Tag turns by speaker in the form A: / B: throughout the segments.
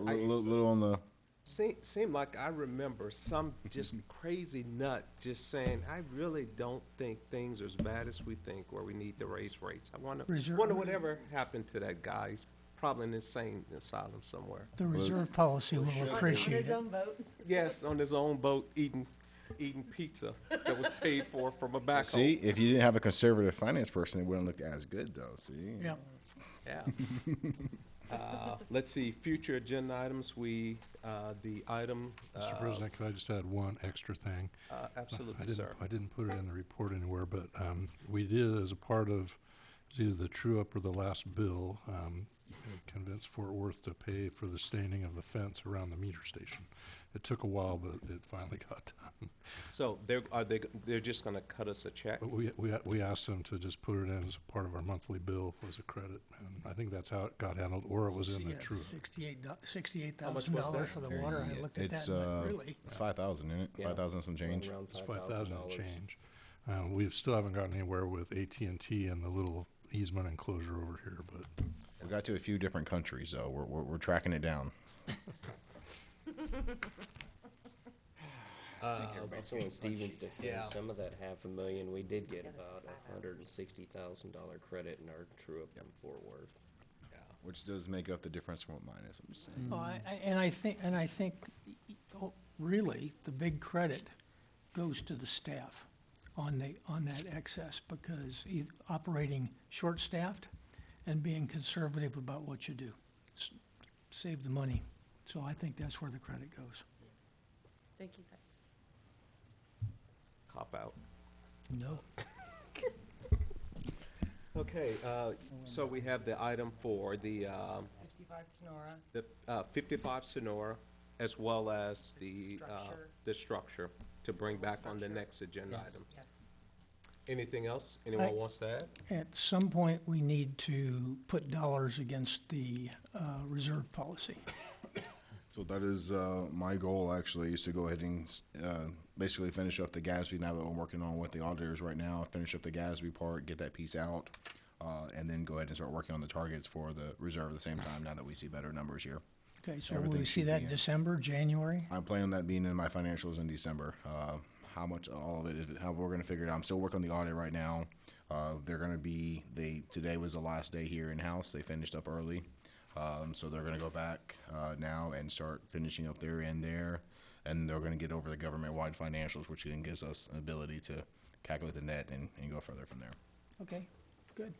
A: little, little on the,
B: Seem, seemed like I remember some just crazy nut just saying, I really don't think things are as bad as we think, or we need to raise rates. I wonder,
C: Reserve-
B: wonder whatever happened to that guy. He's probably in insane asylum somewhere.
C: The reserve policy will appreciate it.
B: Yes, on his own boat eating, eating pizza that was paid for from a backhoe.
A: see, if you didn't have a conservative finance person, it wouldn't look as good though, see?
C: Yeah,
B: Yeah. Uh, Let's see, future agenda items, we, uh, the item,
D: Mr.
B: uh,
D: President, could I just add one extra thing?
B: uh,
D: I
B: absolutely,
D: didn't-
B: sir.
D: I didn't put it in the report anywhere, but um, we did, as a part of, it was either the true-up or the last bill, um, convince Fort Worth to pay for the staining of the fence around the meter station. It took a while, but it finally got done.
B: So they're, are they, they're just gonna cut us a check?
D: But we, we, we asked them to just put it in as a part of our monthly bill as a credit, and I think that's how it got handled, or it was in the
C: yeah,
D: true-up.
C: sixty-eight, sixty-eight
B: much
C: thousand
B: was
C: dollars
B: that?
C: for the water, I looked at that,
A: It's,
C: and
A: uh,
C: went, really?
A: it's five thousand, isn't it?
B: Yeah.
A: Five thousand some change.
B: Around
D: It's five thousand
B: $5,000.
D: change. Uh, we still haven't gotten anywhere with AT&T and the little easement enclosure over here, but
A: We got to a few different countries though, we're, we're, we're tracking it down.
E: Also in Stevens'
B: Yeah.
E: defense, some of that half a million, we did get about a hundred and sixty thousand dollar credit in our true-up from Fort Worth.
A: Which does make up the difference from what mine is, I'm just saying.
C: Oh, I, I, and I think, and I think, oh, really, the big credit goes to the staff on the, on that excess, because e- operating short-staffed and being conservative about what you do. S- Save the money, so I think that's where the credit goes.
F: Thank you, guys.
B: Cop out.
C: No,
B: Okay, uh, so we have the item for the, um,
G: 55 Sonora.
B: the uh, 55 Sonora, as well as the, uh,
G: Structure.
B: the structure, to bring back on the next agenda item.
G: Yes.
B: Anything else anyone
C: I-
B: wants to add?
C: at some point, we need to put dollars against the, uh, reserve policy.
A: So that is uh, my goal actually is to go ahead and uh, basically finish up the Gatsby now that I'm working on with the auditors right now. Finish up the Gatsby part, get that piece out, uh, and then go ahead and start working on the targets for the reserve at the same time. Now that we see better numbers here,
C: Okay, so will
A: Everything
C: we see
A: should
C: that
A: be in.
C: in December, January?
A: I'm planning on that being in my financials in December. Uh, how much all of it is how we're going to figure it out. I'm still working on the audit right now. Uh, they're going to be they today was the last day here in house. They finished up early, um, so they're going to go back uh, now and start finishing up their end there, and they're going to get over the government wide financials, which then gives us an ability to calculate the net and, and go further from there.
C: Okay, good.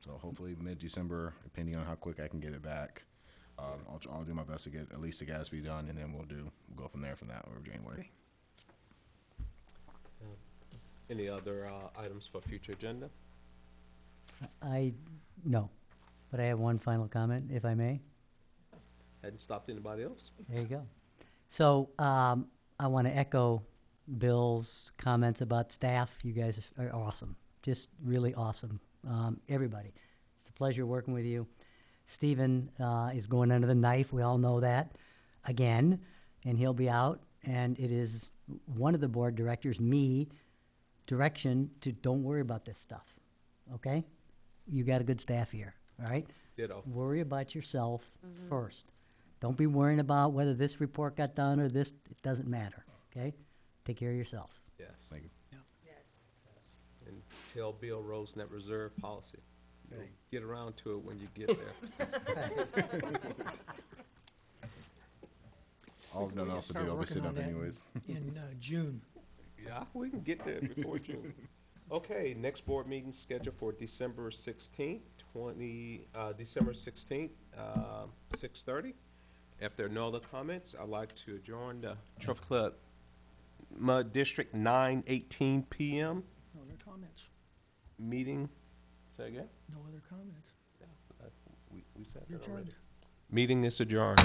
A: So hopefully mid December, depending on how quick I can get it back. Um, I'll, I'll do my best to get at least the Gatsby done, and then we'll do we'll go from there from that over January.
C: Okay.
B: Any other uh, items for future agenda?
H: I, no, but I have one final comment, if I may.
B: Hadn't stopped anybody else?
H: There you go. So, um, I want to echo Bill's comments about staff. You guys are awesome, just really awesome, um, everybody. It's a pleasure working with you. Stephen uh, is going under the knife. We all know that again, and he'll be out. And it is one of the board directors, me, direction to don't worry about this stuff. Okay, you got a good staff here. All right
B: Ditto.
H: worry about yourself first. Don't be worrying about whether this report got done or this, it doesn't matter, okay? Take care of yourself.
B: Yes.
A: Thank you.
F: Yes.
B: And tell Bill Rose that reserve policy. You'll Get around to it when you get there.
A: All of nothing else to do,
C: Start
A: I'll be
C: working
A: sitting
C: on
A: up
C: that
A: anyways.
C: In uh, June.
B: Yeah, we can get there before June. Okay, next board meeting scheduled for December sixteenth, twenty, uh, December sixteenth, uh, six thirty. If there are no other comments, I'd like to adjourn the Turf Club Mud District nine eighteen PM
C: No other comments.
B: meeting. Say again?
C: No other comments.
B: We, we said
C: You're
B: that already.
C: adjourned.
B: Meeting is adjourned.